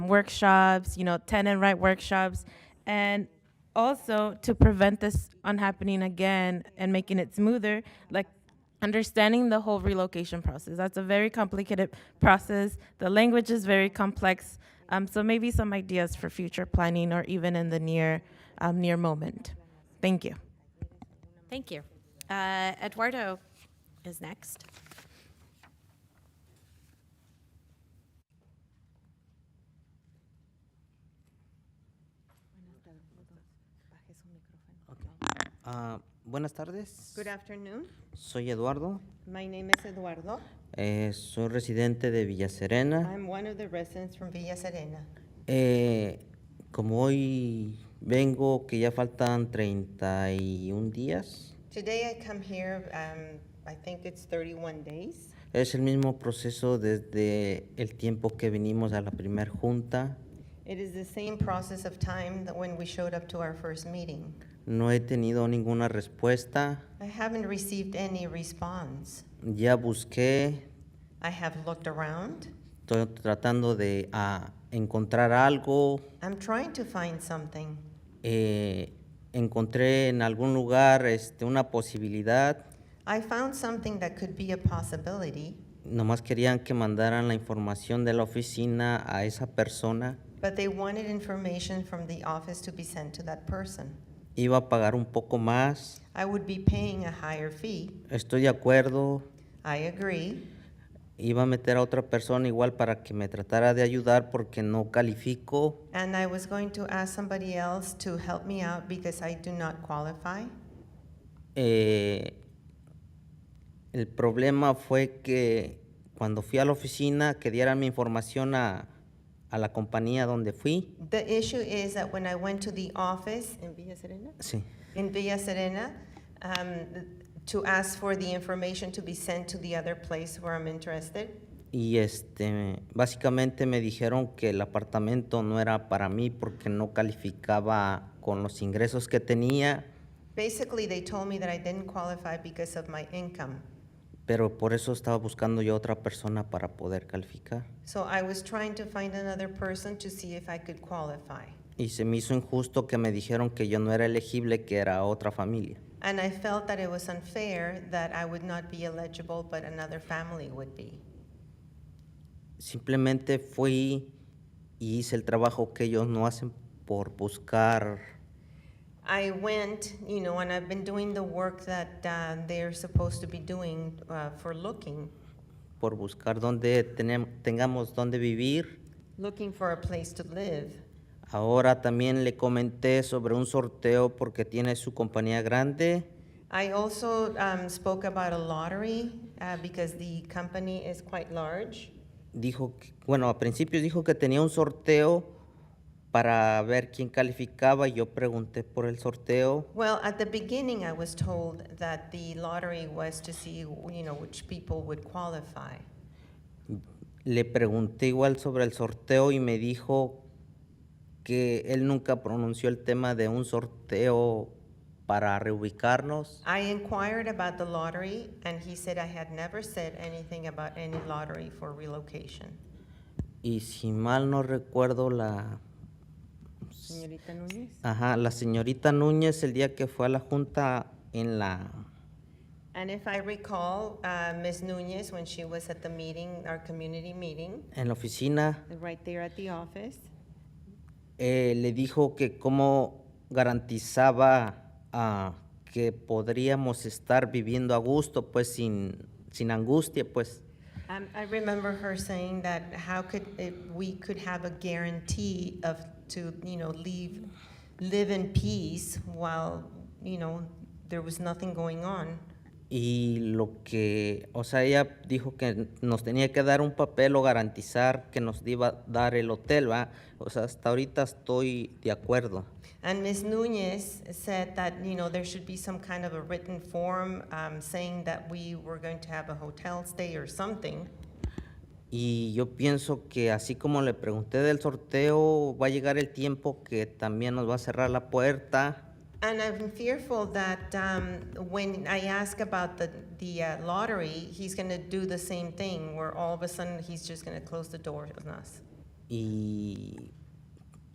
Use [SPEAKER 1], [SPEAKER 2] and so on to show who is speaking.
[SPEAKER 1] workshops, you know, tenant right workshops, and also to prevent this on happening again and making it smoother, like understanding the whole relocation process. That's a very complicated process. The language is very complex. Um, so maybe some ideas for future planning or even in the near um, near moment. Thank you.
[SPEAKER 2] Thank you. Uh, Eduardo is next.
[SPEAKER 3] Ah, buenas tardes.
[SPEAKER 4] Good afternoon.
[SPEAKER 3] Soy Eduardo.
[SPEAKER 4] My name is Eduardo.
[SPEAKER 3] Eh, soy residente de Villa Serena.
[SPEAKER 4] I'm one of the residents from Villa Serena.
[SPEAKER 3] Eh, como hoy vengo, que ya faltan 31 días,
[SPEAKER 4] Today I come here, um, I think it's 31 days.
[SPEAKER 3] es el mismo proceso desde el tiempo que venimos a la primer junta.
[SPEAKER 4] It is the same process of time that when we showed up to our first meeting.
[SPEAKER 3] No he tenido ninguna respuesta.
[SPEAKER 4] I haven't received any response.
[SPEAKER 3] Ya busqué,
[SPEAKER 4] I have looked around.
[SPEAKER 3] estoy tratando de ah, encontrar algo.
[SPEAKER 4] I'm trying to find something.
[SPEAKER 3] Eh, encontré en algún lugar este, una posibilidad.
[SPEAKER 4] I found something that could be a possibility,
[SPEAKER 3] Nomás querían que mandaran la información de la oficina a esa persona.
[SPEAKER 4] but they wanted information from the office to be sent to that person.
[SPEAKER 3] Iba a pagar un poco más.
[SPEAKER 4] I would be paying a higher fee.
[SPEAKER 3] Estoy de acuerdo.
[SPEAKER 4] I agree.
[SPEAKER 3] Iba a meter a otra persona igual para que me tratara de ayudar porque no califico.
[SPEAKER 4] And I was going to ask somebody else to help me out because I do not qualify.
[SPEAKER 3] Eh, el problema fue que cuando fui a la oficina que dieran mi información a, a la compañía donde fui.
[SPEAKER 4] The issue is that when I went to the office in Villa Serena,
[SPEAKER 3] Sí.
[SPEAKER 4] in Villa Serena, um, to ask for the information to be sent to the other place where I'm interested,
[SPEAKER 3] Y este, básicamente me dijeron que el apartamento no era para mí porque no calificaba con los ingresos que tenía,
[SPEAKER 4] basically they told me that I didn't qualify because of my income.
[SPEAKER 3] pero por eso estaba buscando yo otra persona para poder calificar.
[SPEAKER 4] So I was trying to find another person to see if I could qualify.
[SPEAKER 3] Y se me hizo injusto que me dijeron que yo no era elegible, que era otra familia.
[SPEAKER 4] And I felt that it was unfair that I would not be eligible, but another family would be.
[SPEAKER 3] Simplemente fui y hice el trabajo que ellos no hacen por buscar
[SPEAKER 4] I went, you know, and I've been doing the work that uh, they're supposed to be doing uh, for looking,
[SPEAKER 3] por buscar dónde tenem- tengamos dónde vivir.
[SPEAKER 4] looking for a place to live.
[SPEAKER 3] Ahora también le comenté sobre un sorteo porque tiene su compañía grande.
[SPEAKER 4] I also um, spoke about a lottery uh, because the company is quite large.
[SPEAKER 3] Dijo, que- bueno, a principios dijo que tenía un sorteo para ver quién calificaba y yo pregunté por el sorteo.
[SPEAKER 4] Well, at the beginning, I was told that the lottery was to see, you know, which people would qualify.
[SPEAKER 3] Le pregunté igual sobre el sorteo y me dijo que él nunca pronunció el tema de un sorteo para reubicarnos.
[SPEAKER 4] I inquired about the lottery, and he said I had never said anything about any lottery for relocation.
[SPEAKER 3] Y si mal no recuerdo, la,
[SPEAKER 4] Señorita Núñez?
[SPEAKER 3] ajá, la señorita Núñez el día que fue a la junta en la
[SPEAKER 4] And if I recall, uh, Ms. Nunez, when she was at the meeting, our community meeting,
[SPEAKER 3] en la oficina
[SPEAKER 4] right there at the office,
[SPEAKER 3] eh, le dijo que cómo garantizaba ah, que podríamos estar viviendo a gusto, pues sin, sin angustia, pues.
[SPEAKER 4] um, I remember her saying that how could, if we could have a guarantee of, to, you know, leave, live in peace while, you know, there was nothing going on.
[SPEAKER 3] Y lo que, o sea, ella dijo que nos tenía que dar un papel o garantizar que nos iba a dar el hotel, ¿va? O sea, hasta ahorita estoy de acuerdo.
[SPEAKER 4] And Ms. Nunez said that, you know, there should be some kind of a written form um, saying that we were going to have a hotel stay or something.
[SPEAKER 3] Y yo pienso que así como le pregunté del sorteo, va a llegar el tiempo que también nos va a cerrar la puerta.
[SPEAKER 4] And I'm fearful that um, when I ask about the, the uh, lottery, he's going to do the same thing, where all of a sudden he's just going to close the door on us.
[SPEAKER 3] Y